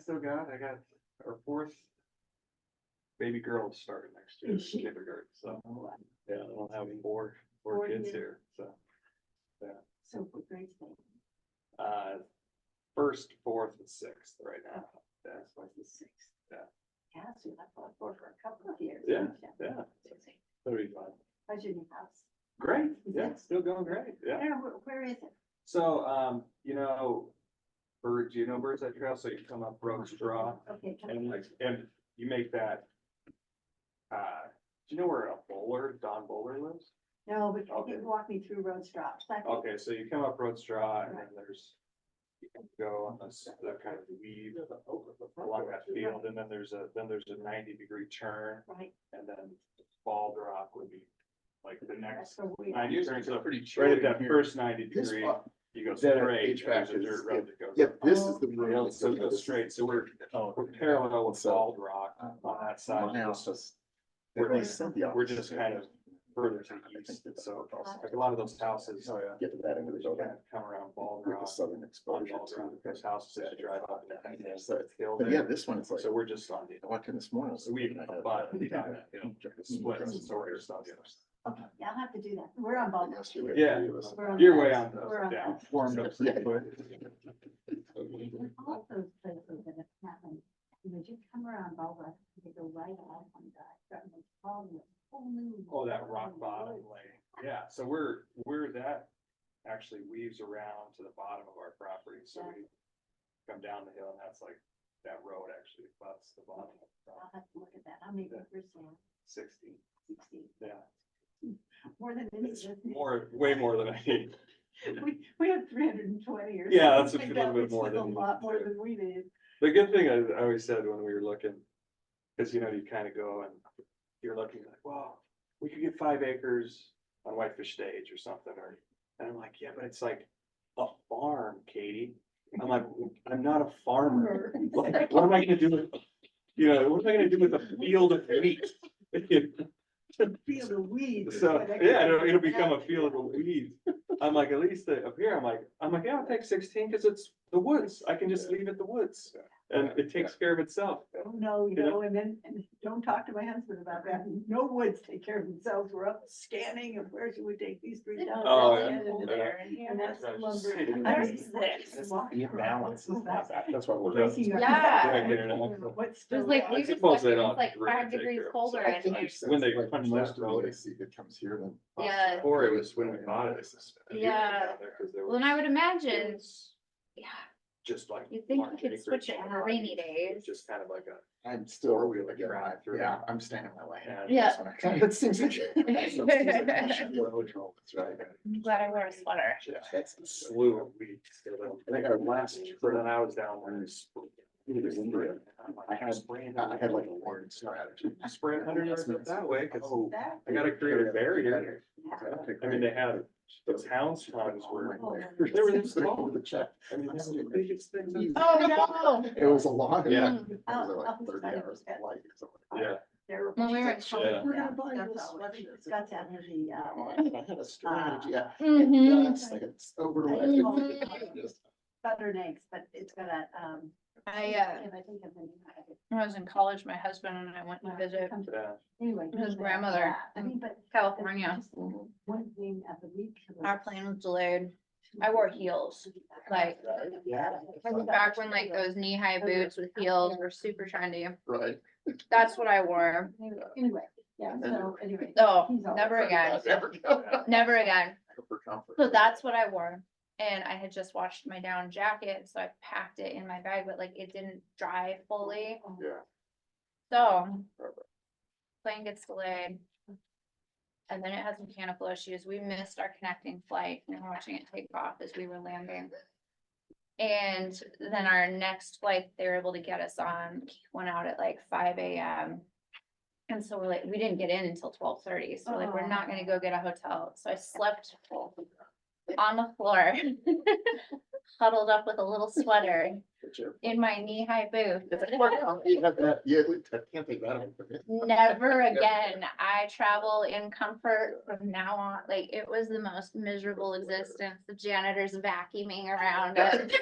still got, I got our fourth baby girl starting next year, Is she- Oh, kindergarten, so, yeah, I'll have four, four Four kids kids. here, so. So what grades they? Uh, first, fourth, and sixth right now, yeah, That's what the sixth. Yeah. Yeah, so I thought for for a couple of years. Yeah, haven't you? yeah, So it's like, that'll be fun. How's your new house? Great, Is yeah, it- still going great, yeah. Where, where- where is it? So, um, you know, birds, you know, birds that trail, so you come up Oh, Rogues Draw Okay. come and on. like, and you make that. Uh, do you know where a bowler, Don Bowler lives? No, but you Okay. can walk me through road stops. Like, Okay, so you come up Rogues Draw and then there's. You can go on this, that kind of weave along that field and then there's a, then there's a ninety degree turn Right. and then Bald Rock would be. Like the That's next where we are. ninety degrees, so Pretty right chilly at that here. first ninety This, degree, uh, you go that straight. and HVAC there's a is- dirt road that goes Yeah, up. this is the. Yeah, road. so go straight, so we're, Oh, we're parallel with Bald Rock on that side, Now, just so it's- We're- it's the we're just opposite. kind of further to the east, and so like a lot of those houses. Oh, yeah. Get to that end of the They kind building. of come around Bald With the Rock, southern on exposure. Bald Rock, to there's it. houses that you drive up. and Yeah, there's so that it's- hill But yeah, there. this one is like, So we're just on the I walked in this morning. So we abut on that hill. split, so we're Yesterday. just on the other side. Okay, yeah, I'll have to do that. We're on Baldwin. Yeah. three of us. We're on You're that. way on the, We're on yeah, that. formed up. Yeah. All those places that have happened, you know, you come around Baldwin, you go right out on that, that was all the whole new. Oh, that rock world. bottom lane, yeah, so we're, we're that actually weaves around to the bottom of our property, so we. Come down the hill and that's like, that road actually butts the bottom of I'll have to look at that. I'll make it first one, sixty, sixty, yeah. more than any. It's more, way more than I need, We, we had three hundred and twenty or. Yeah, that's a something little like that, bit which more was than A you lot more do. than we did. the good thing I I always said when we were looking. Cause you know, you kinda go and you're looking like, well, we could get five acres on Whitefish Stage or something, or, and I'm like, yeah, but it's like. A farm, Katie, I'm like, I'm not a farmer. Like, what am I gonna do with, you know, what am I gonna do with a field of wheat? Field of weeds. is So, what I yeah, it'll, call it'll it. become a field of weeds. I'm like, at least uh, up here, I'm like, I'm like, yeah, I'll take sixteen, cause it's the woods, I can just leave it the woods. And it takes care of itself. Oh, no, you you know? know, and then, and don't talk to my husband about that. No woods take care of themselves. We're up scanning of where should we take these three down? Oh, down yeah. and into Yeah. there, and- And that's That's lumber. right. I was six, That's walking the around. balance. What was that? That's what we're. Breaking your- Yeah. Yeah, get it out. What's It was still alive? like, we I were just suppose they lucky it was don't like really five take degrees care of colder. I and think there's- it's When they like punch most that of the road. legacy that comes here then. Yeah. Or it was when we bought it. Yeah. Well, and I would It imagine, was yeah, Just like. you'd think you large could switch it acreage. on a rainy day. It's Just kind of like a, I'm still Or we really would like, drive through. yeah, I'm standing my lane. Yeah. Yeah. That seems like. that seems like I should be on the road roll, That's right. I'm glad I wore a sweater. That's the slew of weeds. I think our last For trip- then I was down there. It was India. I had- spraying. I had like a word strategy. Spraying hundred yards up that way, cause Oh, That- I gotta create a barrier. okay, I mean, great. they had, the hounds were, Oh, they were this small. The check. I mean, that's the biggest thing. I've- Oh, It was a lot. Yeah. Mm. It was like thirty hours of light. or something. Yeah. There- When we were in that's college, all- we're gonna yeah, buy that's this all it is. sweatshirt. It's got to have the, Yeah, well, uh, I Mm-hmm. had a strategy. yeah. Mhm. Yes, like it's overwhelming. Mhm. Just- buttered eggs, but it's got a, um. I, uh, if I think of the name of it. when I was in college, my husband and I went to visit Comes- Yeah. Anyway. His yeah, grandmother yeah. I in mean, but. California. just One thing of the week. Our plane was delayed. I wore heels, like- Yeah. Back when like those knee-high boots with heels were super trendy. Right. That's what I wore. Anyway, yeah, And then- so anyway. Oh, he's all- never again. Never go. Never again. For comfort. So that's what I wore. And I had just washed my down jacket, so I packed it in my bag, but like it didn't dry fully. Oh, Yeah. So. Plane gets delayed. And then it had mechanical issues. We missed our connecting flight and watching it take off as we were landing. And then our next flight they were able to get us on went out at like five AM. And so we're like, we didn't get in until twelve thirty, so like, we're not gonna go get a hotel. So I slept on the floor. Huddled up with a little sweater in my knee-high boots. You have that, yeah, we- I can't take that. away from you. Never again. I travel in comfort from now on. Like, it was the most miserable existence. The janitor's vacuuming around it.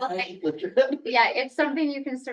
Like, Yeah, it's something you can survive